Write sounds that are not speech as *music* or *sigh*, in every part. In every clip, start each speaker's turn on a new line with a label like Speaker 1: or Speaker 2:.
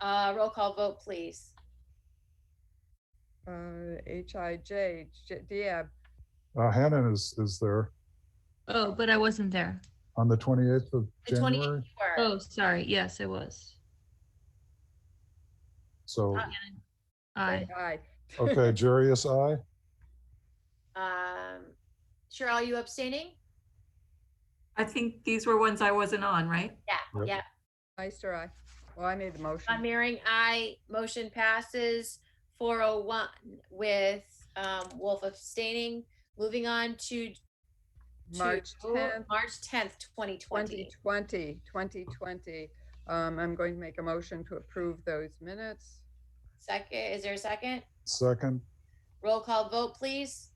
Speaker 1: Uh, roll call vote, please.
Speaker 2: Uh, H I J, J- Deab,
Speaker 3: Uh, Hannon is, is there
Speaker 4: Oh, but I wasn't there.
Speaker 3: on the 28th of
Speaker 1: The twenty-eighth
Speaker 3: January.
Speaker 1: you were.
Speaker 4: Oh, sorry. Yes, I was.
Speaker 3: So,
Speaker 1: Uh,
Speaker 4: I,
Speaker 2: say aye.
Speaker 1: Oh,
Speaker 3: *laughs* okay, Jerry is I.
Speaker 1: Um, Cheryl, are you abstaining?
Speaker 5: I think these were ones I wasn't on, right?
Speaker 1: Yeah,
Speaker 3: Yep.
Speaker 1: yeah.
Speaker 2: Meister, aye. Well, I made the
Speaker 1: Von
Speaker 2: motion.
Speaker 1: Mering, aye. Motion passes four oh one with, um, Wolf abstaining. Moving on to. to
Speaker 2: March 10th,
Speaker 1: March tenth, twenty twenty.
Speaker 2: 2020, 2020. Um, I'm going to make a motion to approve those minutes.
Speaker 1: Second, is there a second?
Speaker 3: Second,
Speaker 1: Roll call vote, please.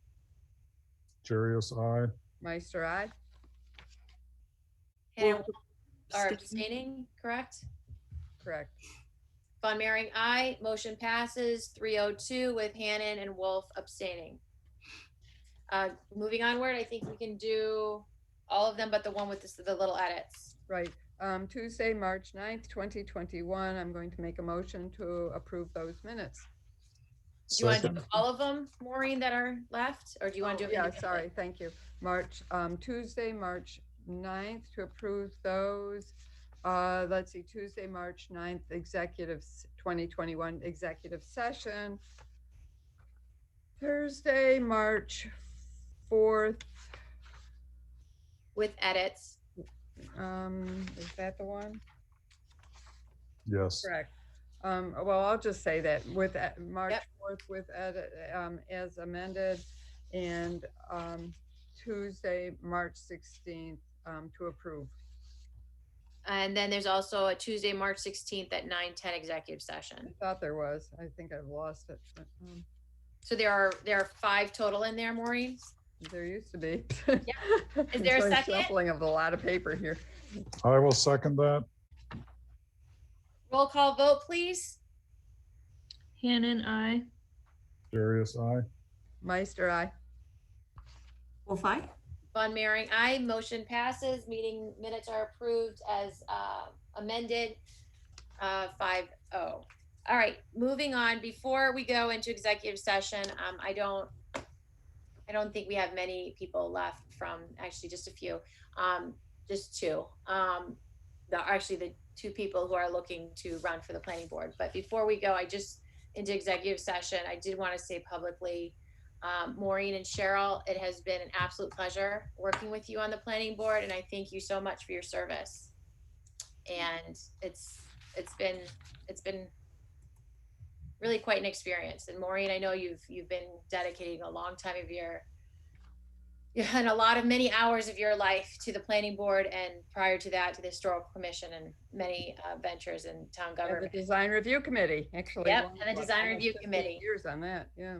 Speaker 3: Jerry is I.
Speaker 2: Meister, aye.
Speaker 1: Hannah
Speaker 5: Wolf
Speaker 1: are
Speaker 5: abstained.
Speaker 1: abstaining, correct?
Speaker 2: Correct.
Speaker 1: Von Mering, aye. Motion passes three oh two with Hannon and Wolf abstaining. Uh, moving onward, I think we can do all of them but the one with this, the little edits.
Speaker 2: Right. Um, Tuesday, March 9th, 2021, I'm going to make a motion to approve those minutes.
Speaker 1: Do you want to
Speaker 3: Second,
Speaker 1: do all of them, Maureen, that are left, or do you want to
Speaker 2: Oh,
Speaker 1: do?
Speaker 2: Yeah,
Speaker 1: individually?
Speaker 2: sorry, thank you. March, um, Tuesday, March 9th to approve those. Uh, let's see, Tuesday, March 9th, executive, s- 2021 executive session. Thursday, March 4th,
Speaker 1: With edits.
Speaker 2: um, is that the one?
Speaker 3: Yes,
Speaker 2: Correct. Um, well, I'll just say that with, uh, March fourth with, edit, um, as amended and, um, Tuesday, March sixteenth, um, to approve.
Speaker 1: And then there's also a Tuesday, March sixteenth at nine ten executive
Speaker 2: I
Speaker 1: session.
Speaker 2: thought there was, I think I've lost it. but, um,
Speaker 1: So there are, there are five total in there, Maureen.
Speaker 2: There used to be.
Speaker 1: Is
Speaker 2: *laughs*
Speaker 1: there a
Speaker 2: It's like
Speaker 1: second?
Speaker 2: Shuffling of a lot of paper here.
Speaker 3: I will second that.
Speaker 1: Roll call vote, please.
Speaker 4: Hannon, I.
Speaker 3: Jerry is I.
Speaker 2: Meister, I,
Speaker 5: Wolf eye?
Speaker 1: Von Mering, aye. Motion passes. Meeting minutes are approved as uh, amended. uh, Five oh. All right, moving on. Before we go into executive session, um, I don't, I don't think we have many people left from, actually just a few, um, just two. Um, The, actually the two people who are looking to run for the planning board. But before we go, I just, into executive session, I did want to say publicly, um, Maureen and Cheryl, it has been an absolute pleasure working with you on the planning board, and I thank you so much for your service. And it's it's been it's been really quite an experience. And Maureen, I know you've you've been dedicating a long time of your *laughs* you had a lot of many hours of your life to the planning board, and prior to that, to the historical commission and many uh, ventures in town
Speaker 2: and the
Speaker 1: government.
Speaker 2: design review committee, actually.
Speaker 1: Yep,
Speaker 2: one
Speaker 1: and the
Speaker 2: of, like,
Speaker 1: design
Speaker 2: almost
Speaker 1: review
Speaker 2: 15
Speaker 1: committee.
Speaker 2: Years on that, yeah.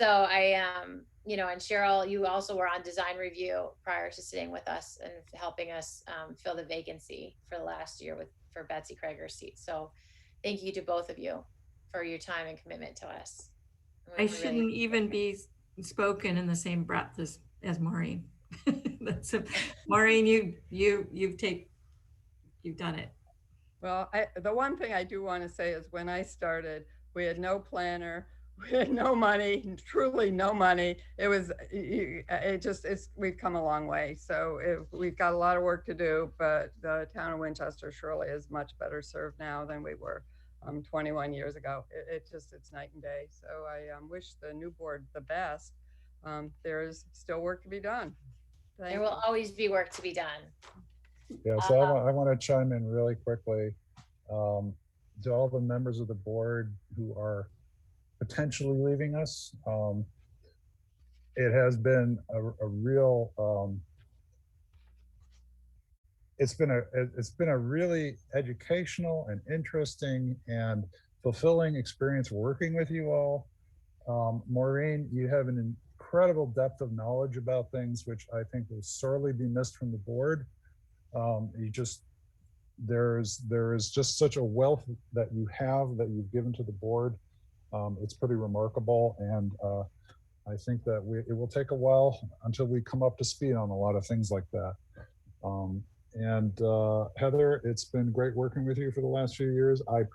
Speaker 1: So I, um, you know, and Cheryl, you also were on design review prior to sitting with us and helping us um, fill the vacancy for the last year with for Betsy Krager's seat. So thank you to both of you for your time and commitment to us. We
Speaker 5: I
Speaker 1: really-
Speaker 5: shouldn't even be spoken in the same breath as, as Maureen. *laughs* That's, a- Maureen, you, you, you've take, you've done it.
Speaker 2: Well, I, the one thing I do want to say is when I started, we had no planner, *laughs* we had no money, truly no money. It was, you- it just, it's, we've come a long way. So it, we've got a lot of work to do, but the town of Winchester surely is much better served now than we were um, 21 years ago. It, it just, it's night and day. So I um, wish the new board the best. Um, there is still work to be done. Thank
Speaker 1: There will always be work to be done.
Speaker 3: Yeah, so I want, I want to chime in really quickly. Um, to all the members of the board who are potentially leaving us, um, it has been a, a real, um, it's been a, it- it's been a really educational and interesting and fulfilling experience working with you all. Um, Maureen, you have an incredible depth of knowledge about things, which I think will sorely be missed from the board um, you just there's there is just such a wealth that you have that you've given to the board um, it's pretty remarkable and uh, i think that we, it will take a while until we come up to speed on a lot of things like that um, and uh, heather it's been great working with you for the last few years i